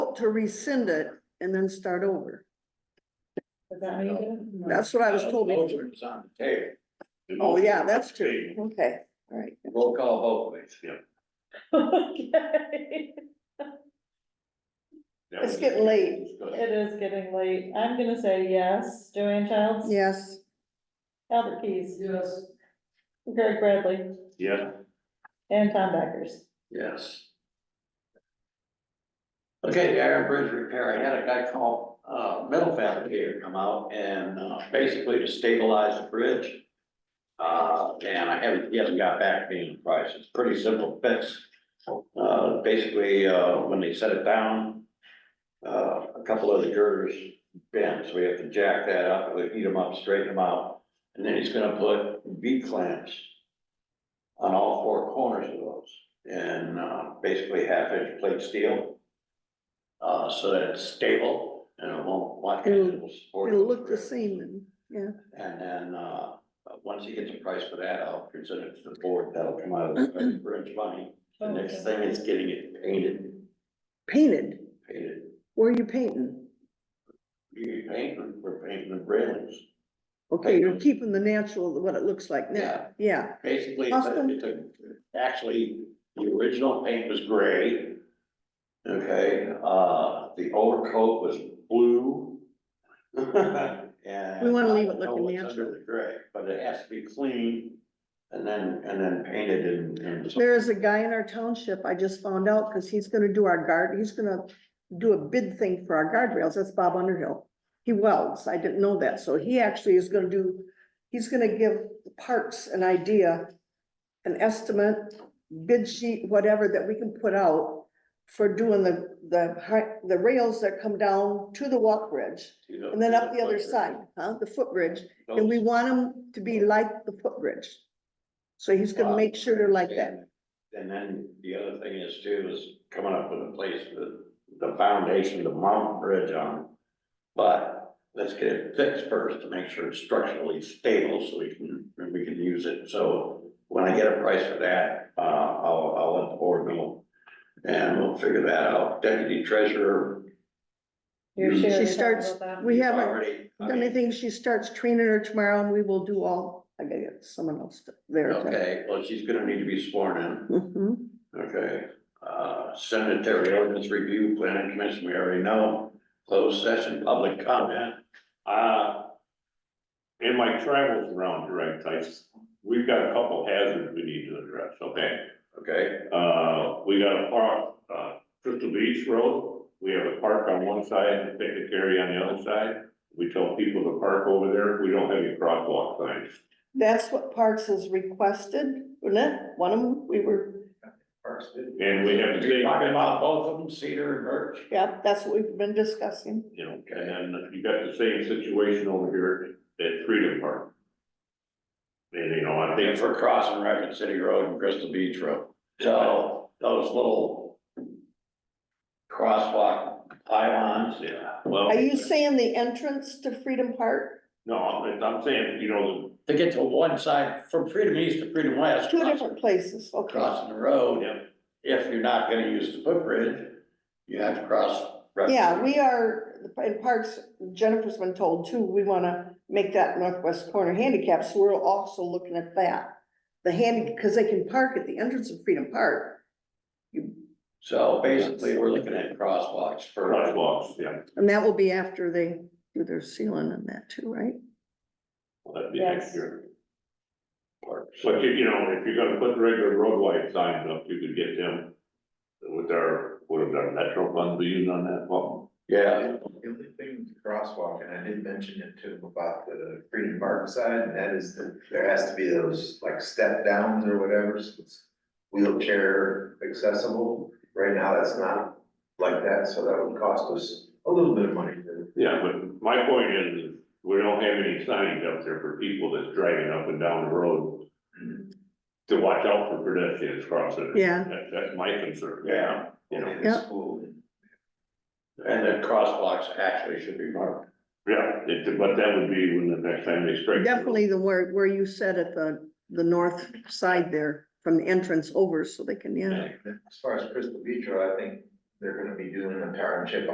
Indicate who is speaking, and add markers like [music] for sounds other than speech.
Speaker 1: to rescind it and then start over.
Speaker 2: Is that how you do it? No.
Speaker 1: That's what I was told.
Speaker 3: Motion is on the table.
Speaker 4: The
Speaker 1: Oh,
Speaker 4: motion
Speaker 1: yeah,
Speaker 4: was
Speaker 1: that's true.
Speaker 4: made.
Speaker 1: Okay, all right.
Speaker 3: Roll call vote, please.
Speaker 2: [laughs] Okay,
Speaker 4: That
Speaker 1: It's
Speaker 4: was-
Speaker 1: getting late.
Speaker 4: discussed.
Speaker 2: it is getting late. I'm gonna say yes. Joanne Childs?
Speaker 1: Yes,
Speaker 2: Albert Keys? Yes. Greg Bradley
Speaker 4: Yeah,
Speaker 2: and Tom Backers.
Speaker 3: Yes. Okay, the Iron Bridge repair, I had a guy call, uh, metal fabricator come out and, uh, basically to stabilize the bridge. Uh, and I haven't, he hasn't got back to me on the price, it's a pretty simple fix. Uh, basically, uh, when they set it down, uh, a couple of the girders bent, so we have to jack that up, we heat them up, straighten them out. And then he's gonna put V clamps on all four corners of those and uh, basically half-inch plate steel. Uh, so that it's stable and it won't, like, it will support.
Speaker 1: it'll look the same then.
Speaker 3: And then, uh, once he gets a price for that, I'll present it to the board, that'll come out of the bridge money. The next thing is getting it painted,
Speaker 1: Painted,
Speaker 3: painted,
Speaker 1: where are you painting?
Speaker 3: you paint, we're painting the railings.
Speaker 1: Okay, you're keeping the natural, what it looks like now. Yeah,
Speaker 3: Basically, it's a- it's a- actually, the original paint was gray. Okay, uh, the overcoat was blue. [laughs] And
Speaker 1: We wanna leave
Speaker 3: I
Speaker 1: it
Speaker 3: don't know
Speaker 1: looking
Speaker 3: what's under
Speaker 1: natural.
Speaker 3: the Gray, but it has to be cleaned and then, and then painted and, and.
Speaker 1: there is a guy in our township, I just found out, because he's gonna do our guard, he's gonna do a bid thing for our guardrails, that's Bob Underhill. He welds, I didn't know that, so he actually is gonna do, he's gonna give the parks an idea, an estimate, bid sheet, whatever that we can put out for doing the, the, hi- the rails that come down to the walk bridge, and then up the other side, huh, the footbridge, and we want them to be like the footbridge. So he's gonna make sure they're like that.
Speaker 3: And then the other thing is too, is coming up with a place with the foundation to mount bridge on. But let's get it fixed first to make sure it's structurally stable so we can, and we can use it. So when I get a price for that, uh, I'll, I'll let the board know. And we'll figure that out. Deputy treasurer.
Speaker 2: You're
Speaker 3: She
Speaker 2: sure you're talking
Speaker 1: starts-
Speaker 2: about that?
Speaker 1: We
Speaker 3: you've
Speaker 1: haven't
Speaker 3: already- I
Speaker 1: The
Speaker 3: mean,
Speaker 1: only thing, she starts training her tomorrow and we will do all, I gotta get someone else to- there. to-
Speaker 3: Okay, well, she's gonna need to be sworn in.
Speaker 1: Mhm.
Speaker 3: Okay, uh, sanitary ordinance review, planning commission, we already know, closed session, public comment.
Speaker 4: uh,
Speaker 3: In my
Speaker 4: travels around direct types, we've got a couple hazards we need to address, okay?
Speaker 3: Okay,
Speaker 4: Uh, we got a park, uh, Crystal Beach Road, we have a park on one side and a picnic area on the other side. We tell people to park over there, we don't have any crosswalk signs.
Speaker 1: That's what Parks has requested, wasn't it? One of them, we were,
Speaker 3: first.
Speaker 4: And we have to
Speaker 3: You're
Speaker 4: take-
Speaker 3: talking about both of them, Cedar and Birch?
Speaker 1: yeah, that's what we've been discussing.
Speaker 4: You know, and then you got the same situation over here at Freedom Park. And you know, I
Speaker 3: They
Speaker 4: think
Speaker 3: for crossing Rapid City Road and Crystal Beach Road, so those little crosswalk pylons, yeah,
Speaker 4: well,
Speaker 1: Are you saying the entrance to Freedom Park?
Speaker 4: no, I'm I'm saying, you know,
Speaker 3: to get to one side, from Freedom East to Freedom West.
Speaker 1: Two different places, okay.
Speaker 3: Crossing the road,
Speaker 4: yeah,
Speaker 3: if you're not gonna use the footbridge, you have to cross. Rapid
Speaker 1: Yeah,
Speaker 3: City.
Speaker 1: we are, in Parks, Jennifer's been told too, we wanna make that northwest corner handicap, so we're also looking at that. The handy, cause they can park at the entrance of Freedom Park. You
Speaker 3: So basically, we're looking at crosswalks for,
Speaker 4: crosswalks, yeah.
Speaker 1: And that will be after they do their sealing and that too, right?
Speaker 4: That'd be next
Speaker 2: Yes.
Speaker 4: year.
Speaker 3: Parks.
Speaker 4: But you, you know, if you're gonna put regular road light signs up, you could get them with our, what are our metro funds we use on that, well,
Speaker 3: yeah,
Speaker 5: The only thing with the crosswalk, and I did mention it to him about the Freedom Park side, and that is that there has to be those like step downs or whatever, so it's wheelchair accessible. Right now, that's not like that, so that would cost us a little bit of money to.
Speaker 4: yeah, but my point is, is we don't have any signs up there for people that's driving up and down the road to watch out for pedestrians crossing.
Speaker 1: Yeah.
Speaker 4: That, that's my concern.
Speaker 3: yeah,
Speaker 4: You know,
Speaker 5: in
Speaker 1: Yeah.
Speaker 5: School.
Speaker 3: and the crosswalks actually should be marked.
Speaker 4: yeah, it- but that would be when the next time they strike.
Speaker 1: Definitely the where, where you said at the, the north side there, from the entrance over, so they can, yeah.
Speaker 5: As far as Crystal Beach, Road, I think they're gonna be doing a town chip